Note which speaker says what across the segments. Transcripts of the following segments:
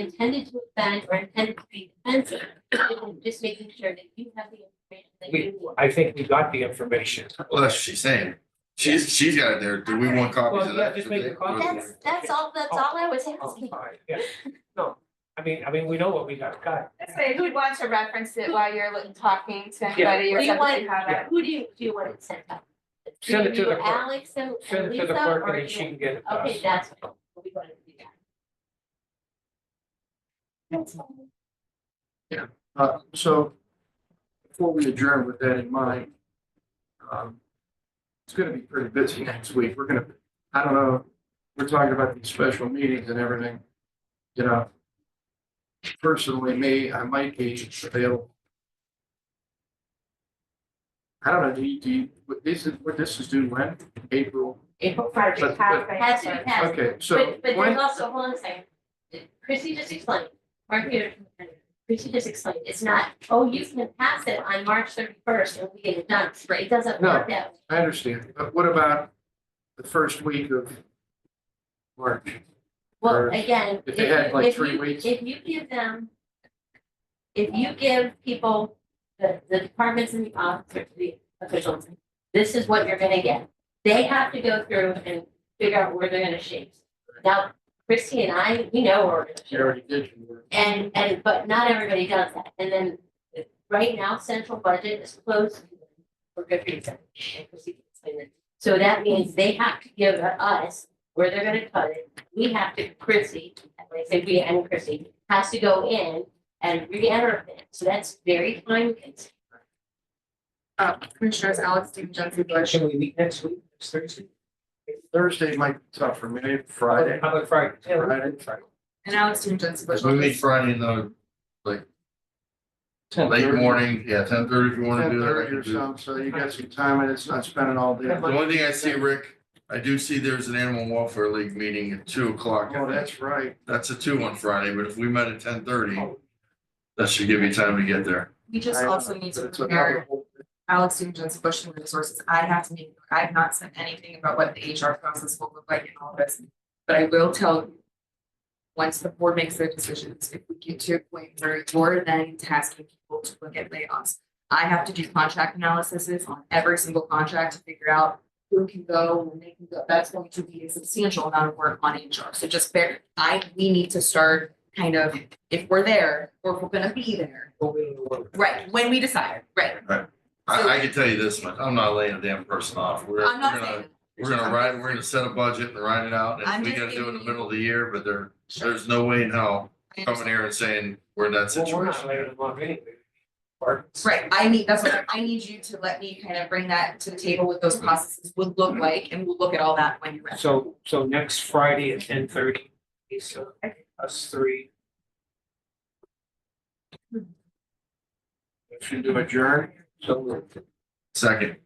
Speaker 1: intended to offend or intended to be offensive. Just making sure that you have the information that you want.
Speaker 2: I think we got the information.
Speaker 3: Well, that's what she's saying. She's, she's got it there. Do we want copies
Speaker 2: Well,
Speaker 3: of
Speaker 2: yeah,
Speaker 3: that?
Speaker 2: just make
Speaker 3: today?
Speaker 2: a copy.
Speaker 1: That's, that's all, that's all I was
Speaker 2: Oh,
Speaker 1: asking.
Speaker 2: fine, yeah. No, I mean, I mean, we know what we got, got.
Speaker 4: Let's say who'd want to reference it while you're like, talking to
Speaker 2: Yeah.
Speaker 4: anybody
Speaker 1: Do
Speaker 4: or
Speaker 1: you
Speaker 4: something?
Speaker 1: want,
Speaker 4: have it?
Speaker 1: who do you, do you want it sent out?
Speaker 2: Send it to
Speaker 1: you,
Speaker 2: the clerk.
Speaker 1: Alex and and
Speaker 2: Send it to the
Speaker 1: Lisa,
Speaker 2: clerk
Speaker 1: or
Speaker 2: and then
Speaker 1: do
Speaker 2: she
Speaker 1: you-
Speaker 2: can get it to
Speaker 1: Okay,
Speaker 2: us.
Speaker 1: that's what we want to do.
Speaker 5: Uh, so before we adjourn with that in mind, um, it's gonna be pretty busy next week. We're gonna, I don't know, we're talking about these special meetings and everything. You know, personally, me, I might be available. I don't know, do you, do you, what this is, what this is due when? April?
Speaker 1: April
Speaker 5: But- but-
Speaker 1: Has to be passed.
Speaker 5: Okay, so
Speaker 1: But, but there's
Speaker 5: when,
Speaker 1: also, hold on a second. Chrissy just explained, Mark Peter, Chrissy just explained, it's not, oh, you can pass it on March thirty first and we get it done. It doesn't work that way.
Speaker 5: I understand, but what about the first week of March?
Speaker 1: Well,
Speaker 5: Or
Speaker 1: again, if
Speaker 5: if they
Speaker 1: you,
Speaker 5: had, like,
Speaker 1: if
Speaker 5: three
Speaker 1: you,
Speaker 5: weeks.
Speaker 1: if you give them. If you give people, the, the departments and the officers, the officials, this is what you're gonna get. They have to go through and figure out where they're gonna shape. Now, Christy and I, we know where we're gonna
Speaker 5: You
Speaker 1: shape.
Speaker 5: already did your work.
Speaker 1: And, and, but not everybody does that, and then, uh, right now, central budget is closed. For good reason. and Chrissy can explain it. So that means they have to give us where they're gonna cut it, we have to, Chrissy, and when I say we and Chrissy, has to go in and re-enter it, so that's very time consuming.
Speaker 6: Uh, Commissioners Alex Stephen Jensen Bush,
Speaker 2: Can we meet next week, next Thursday?
Speaker 5: Thursday might be tough for me, Friday,
Speaker 2: How about Friday?
Speaker 5: Friday,
Speaker 6: and Alex Stephen Jensen Bush.
Speaker 3: If we meet Friday in the late morning, yeah, ten thirty if you wanna
Speaker 5: ten
Speaker 3: do that. I
Speaker 5: thirty
Speaker 3: can
Speaker 5: or
Speaker 3: do that.
Speaker 5: something, so you got some time and it's not spending all day.
Speaker 3: The only thing I see, Rick, I do see there's an animal welfare league meeting at two o'clock.
Speaker 5: Oh, that's right.
Speaker 3: That's a two on Friday, but if we met at ten thirty,
Speaker 5: Oh.
Speaker 3: that should give me time to get there.
Speaker 6: We just
Speaker 5: I- uh,
Speaker 6: also need to
Speaker 5: That's what-
Speaker 6: prepare Alex Stephen Jensen Bush and resources. I have to meet, I have not sent anything about what the HR process will look like in all this. But I will tell you, once the board makes their decisions, if we get to a point where you're then tasking people to look at layoffs. I have to do contract analysis on every single contract to figure out who can go, when they can go. That's going to be a substantial amount of work on HR. So just bear, I, we need to start kind of, if we're there, or if we're gonna be there. Right, when we decide, right.
Speaker 3: I, I can tell you this much, I'm not laying a damn person off. We're,
Speaker 6: I'm
Speaker 3: we're
Speaker 6: not
Speaker 3: gonna,
Speaker 6: saying,
Speaker 3: we're gonna ride, we're gonna set a budget and ride it out.
Speaker 6: I'm
Speaker 3: And we
Speaker 6: just
Speaker 3: gotta do it in the
Speaker 6: giving you-
Speaker 3: middle of the year, but there, there's no way in hell
Speaker 6: I
Speaker 3: coming
Speaker 6: understand.
Speaker 3: here and saying we're in that
Speaker 2: Well, we're not
Speaker 3: situation.
Speaker 2: later than one anyway. Or-
Speaker 6: Right, I need, that's what, I need you to let me kind of bring that to the table what those processes would look like, and we'll look at all that when you're ready.
Speaker 2: So, so next Friday at ten thirty, is uh, us three.
Speaker 5: Motion to adjourn.
Speaker 2: So, moved.
Speaker 3: Second,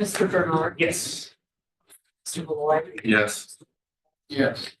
Speaker 6: Mr. Bernard,
Speaker 2: yes.
Speaker 6: Mr. Malloy.
Speaker 3: yes.
Speaker 5: Yes.